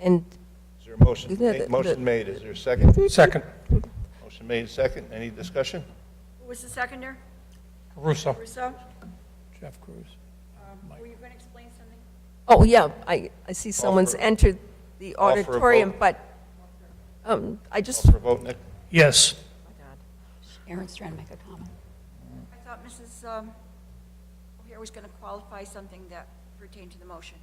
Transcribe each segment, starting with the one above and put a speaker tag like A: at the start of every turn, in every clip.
A: And
B: Is there a motion?
A: Isn't it
B: Ma-
A: the- the-
B: Motion made, is there a second?
C: Second,
B: Motion made, second, any discussion?
D: Who was the seconder?
C: Russo.
D: Russo?
C: Jeff Cruz.
D: Were you going to explain something?
A: Oh, yeah, I, I see someone's
B: for-
A: entered the
B: call for a
A: auditorium,
B: vote.
A: but um, I just,
B: Call for a vote, Nick?
C: Yes.
E: Aaron's trying to make a comment.
D: I thought Mrs. um, O'Hare was going to qualify something that pertained to the motion.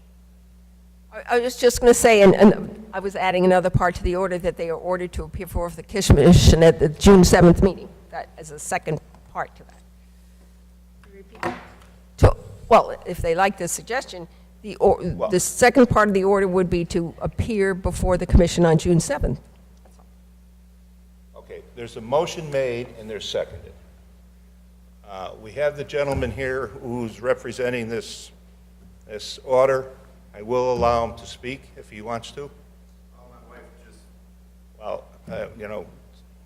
A: I I was just going to say, and, and I was adding another part to the order, that they are ordered to appear before the commission at the June 7th meeting. That is a second part to that. To, well, if they like this suggestion, the, or-
B: Well-
A: the second part of the order would be to appear before the commission on June 7th.
B: Okay, there's a motion made and there's seconded. Uh, We have the gentleman here who's representing this, this order. I will allow him to speak if he wants to. Well, uh, you know,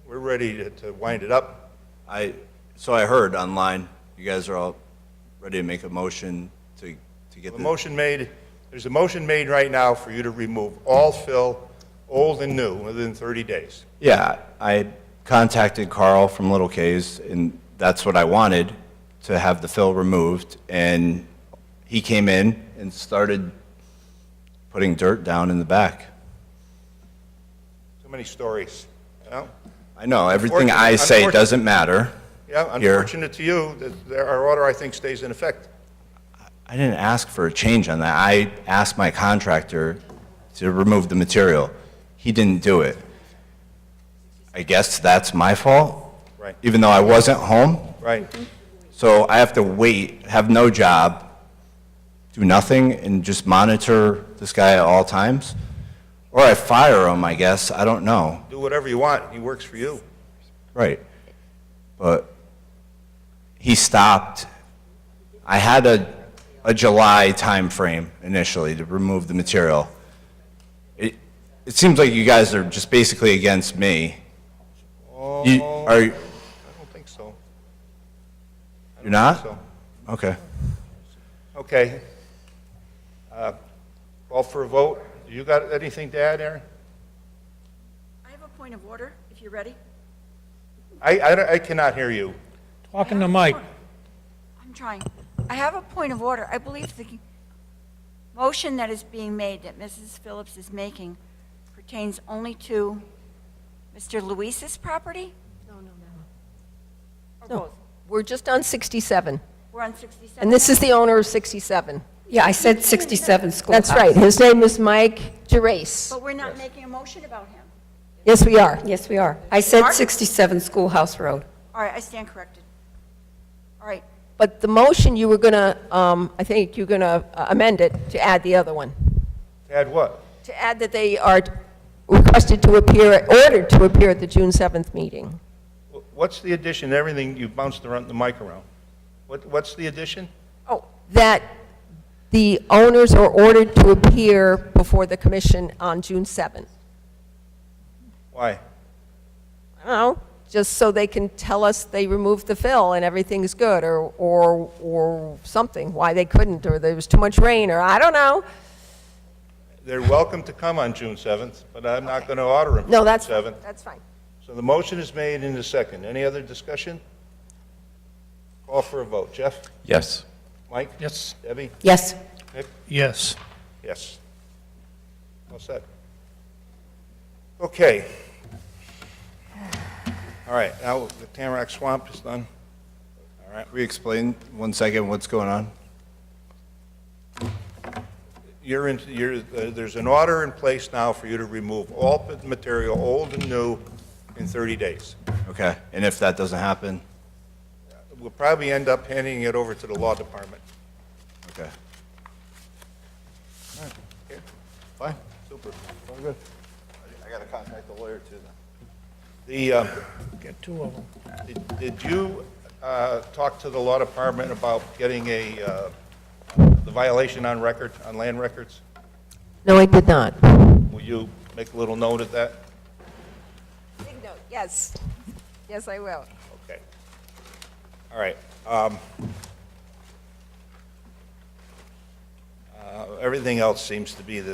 B: we're ready to- to wind it up.
F: I, so I heard online, you guys are all ready to make a motion to, to get
B: The
F: the.
B: motion made, there's a motion made right now for you to remove all fill, old and new, within 30 days.
F: Yeah, I contacted Carl from Little K's, and that's what I wanted, to have the fill removed, and he came in and started putting dirt down in the back.
B: Too many stories, you know?
F: I know, everything I say
B: Unfortunate-
F: doesn't matter.
B: Yeah,
F: here.
B: unfortunate to you, that there- our order, I think, stays in effect.
F: I didn't ask for a change on that. I asked my contractor to remove the material. He didn't do it. I guess that's my fault?
B: Right.
F: Even though I wasn't home?
B: Right.
A: Mm-hmm.
F: So I have to wait, have no job, do nothing, and just monitor this guy at all times? Or I fire him, I guess. I don't know.
B: Do whatever you want, he works for you.
F: Right. But he stopped. I had a, a July timeframe initially to remove the material. It, it seems like you guys are just basically against me. You, are, you-
B: I don't think so.
F: you're not?
B: So,
F: Okay.
B: okay. Uh, Call for a vote. You got anything to add, Aaron?
D: I have a point of order, if you're ready.
B: I, I don't- I cannot hear you.
C: Talking to Mike.
D: I'm trying. I have a point of order. I believe the motion that is being made, that Mrs. Phillips is making, pertains only to Mr. Luis's property? No, no, no. Or both?
A: We're just on 67,
D: We're on 67?
A: and this is the owner of 67.
E: Yeah, I said 67 Schoolhouse.
A: That's right, his name is Mike Gerace.
D: But we're not making a motion about him.
A: Yes, we are.
E: Yes, we are. I said
D: Mark?
E: 67 Schoolhouse Road.
D: All right, I stand corrected. All right,
A: But the motion, you were going to, I think you're going to amend it to add the other one,
B: Add what?
A: to add that they are requested to appear, ordered to appear at the June 7th meeting.
B: Wh- What's the addition, everything, you bounced around the mic around. What, what's the addition?
A: Oh. That the owners are ordered to appear before the commission on June 7th.
B: Why?
A: I don't know, just so they can tell us they removed the fill and everything's good, or, or, or something, why they couldn't, or there was too much rain, or I don't know.
B: They're welcome to come on June 7th, but I'm not going to order them.
A: No, that's,
B: June 7th.
A: that's fine.
B: So the motion is made in a second. Any other discussion? Call for a vote. Jeff?
G: Yes.
B: Mike?
C: Yes.
B: Debbie?
E: Yes.
B: Nick?
C: Yes.
B: Yes. All set. Okay. All right, now the Tamarack Swamp is done. All right.
F: Can we explain one second what's going on?
B: You're in, you're, uh, there's an order in place now for you to remove all the material, old and new, in 30 days.
F: Okay. And if that doesn't happen?
B: We'll probably end up handing it over to the law department.
F: Okay.
B: Okay. Fine, super, all good. I gotta contact the lawyer too then. The, uh,
C: Get two of them.
B: did- did you uh, talk to the law department about getting a, uh, the violation on record, on land records?
A: No, I did not.
B: Will you make a little note of that?
A: Big note, yes. Yes, I will.
B: Okay. All right. um, uh, Everything else seems to be the